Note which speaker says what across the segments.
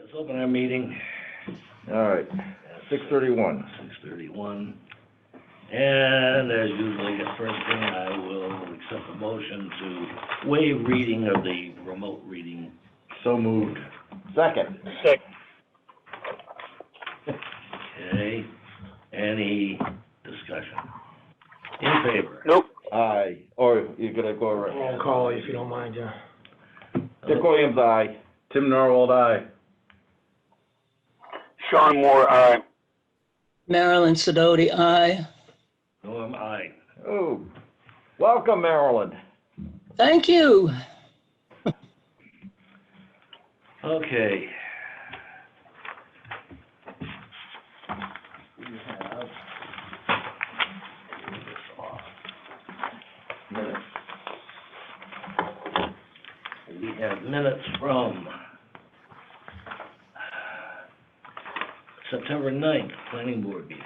Speaker 1: Let's open our meeting.
Speaker 2: All right, six thirty-one.
Speaker 1: Six thirty-one. And as usually, the first thing I will accept a motion to waive reading of the remote reading.
Speaker 2: So moved. Second.
Speaker 1: Okay? Any discussion? In favor?
Speaker 2: Aye, or you're gonna go around.
Speaker 3: Roll call if you don't mind, yeah.
Speaker 2: Dick Williams, aye. Tim Norwald, aye.
Speaker 4: Sean Moore, uh, aye.
Speaker 5: Marilyn Sedoti, aye.
Speaker 1: Norm, aye.
Speaker 2: Oh, welcome Maryland.
Speaker 5: Thank you.
Speaker 1: Okay. We have. Leave this off. Minutes. We have minutes from September ninth, planning board meeting.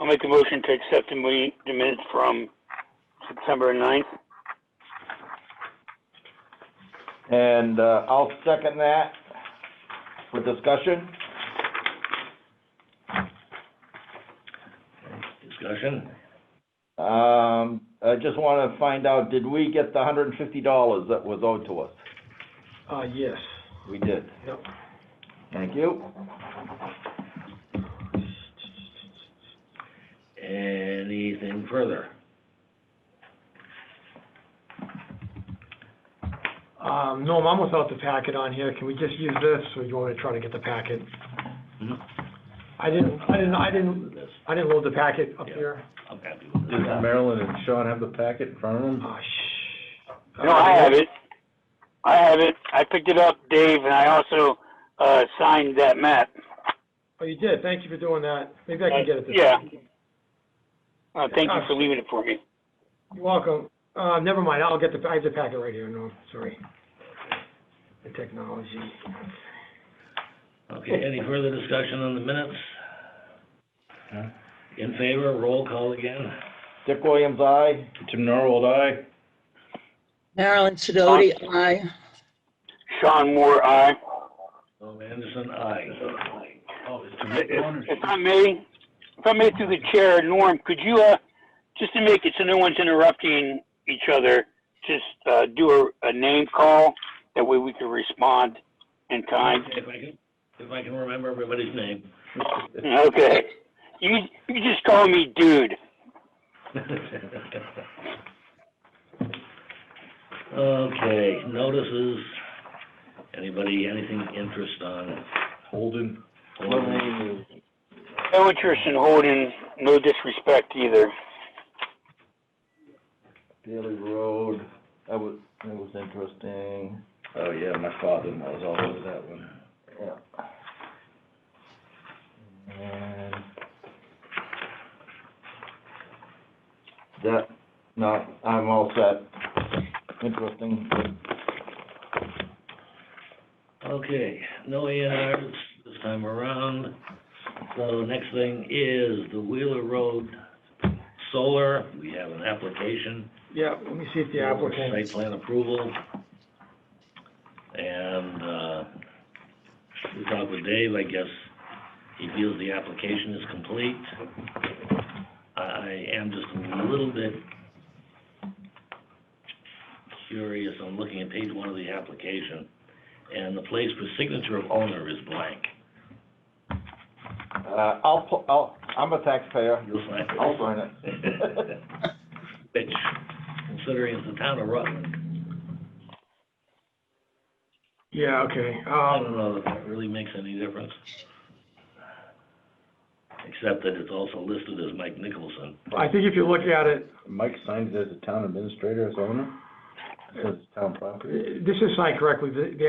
Speaker 4: I'll make a motion to accept the mi- the minutes from September ninth.
Speaker 2: And, uh, I'll second that for discussion.
Speaker 1: Discussion?
Speaker 2: Um, I just wanna find out, did we get the hundred and fifty dollars that was owed to us?
Speaker 3: Uh, yes,
Speaker 2: We did.
Speaker 3: yep.
Speaker 2: Thank you.
Speaker 1: Anything further?
Speaker 3: Um, Norm, I'm without the packet on here, can we just use this, or do you want me to try to get the packet?
Speaker 1: Mhm.
Speaker 3: I didn't, I didn't, I didn't,
Speaker 1: This,
Speaker 3: I didn't load the packet up
Speaker 1: Yeah.
Speaker 3: here.
Speaker 1: I'm happy with this.
Speaker 2: Maryland and Sean have the packet in front of them?
Speaker 3: Oh, shh.
Speaker 4: No, I have it. I have it. I picked it up, Dave, and I also, uh, signed that map.
Speaker 3: Oh, you did, thank you for doing that, maybe I can get it this
Speaker 4: Yeah.
Speaker 3: time.
Speaker 4: Uh, thank you for leaving it for me.
Speaker 3: You're welcome, uh, never mind, I'll get the, I have the packet right here, Norm, sorry. The technology.
Speaker 1: Okay, any further discussion on the minutes? In favor, roll call again.
Speaker 2: Dick Williams, aye. Tim Norwald, aye.
Speaker 5: Marilyn Sedoti, aye.
Speaker 4: Sean Moore, aye.
Speaker 1: Tom Anderson, aye. Oh,
Speaker 4: If I may, if I may through the chair, Norm, could you, uh, just to make it so no one's interrupting each other, just, uh, do a, a name call? That way we can respond in time.
Speaker 1: If I can, if I can remember everybody's name.
Speaker 4: Okay. You, you just call me dude.
Speaker 1: Okay, notices, anybody, anything interest on?
Speaker 2: Holden.
Speaker 1: Holden?
Speaker 4: No interest in holding, no disrespect either.
Speaker 2: Daily Road, that was, that was interesting. Oh, yeah, my father-in-law was all over that one. Yeah. And that, no, I'm all set. Interesting.
Speaker 1: Okay, no A and Rs this time around. So the next thing is the Wheeler Road Solar. We have an application.
Speaker 3: Yeah, let me see if the applicant,
Speaker 1: Site plan approval. And, uh, we talked with Dave, I guess he feels the application is complete. I, I am just a little bit curious, I'm looking at page one of the application, and the place for signature of owner is blank.
Speaker 2: Uh, I'll, pu- I'll, I'm a taxpayer,
Speaker 1: You'll find it.
Speaker 2: I'll sign it.
Speaker 1: Which, considering it's the town of Rutland,
Speaker 3: yeah, okay,
Speaker 1: I
Speaker 3: um,
Speaker 1: don't know that that really makes any difference. Except that it's also listed as Mike Nicholson.
Speaker 3: I think if you look at it,
Speaker 2: Mike signs as a town administrator, as owner, as town property.
Speaker 3: this is signed correctly, the, the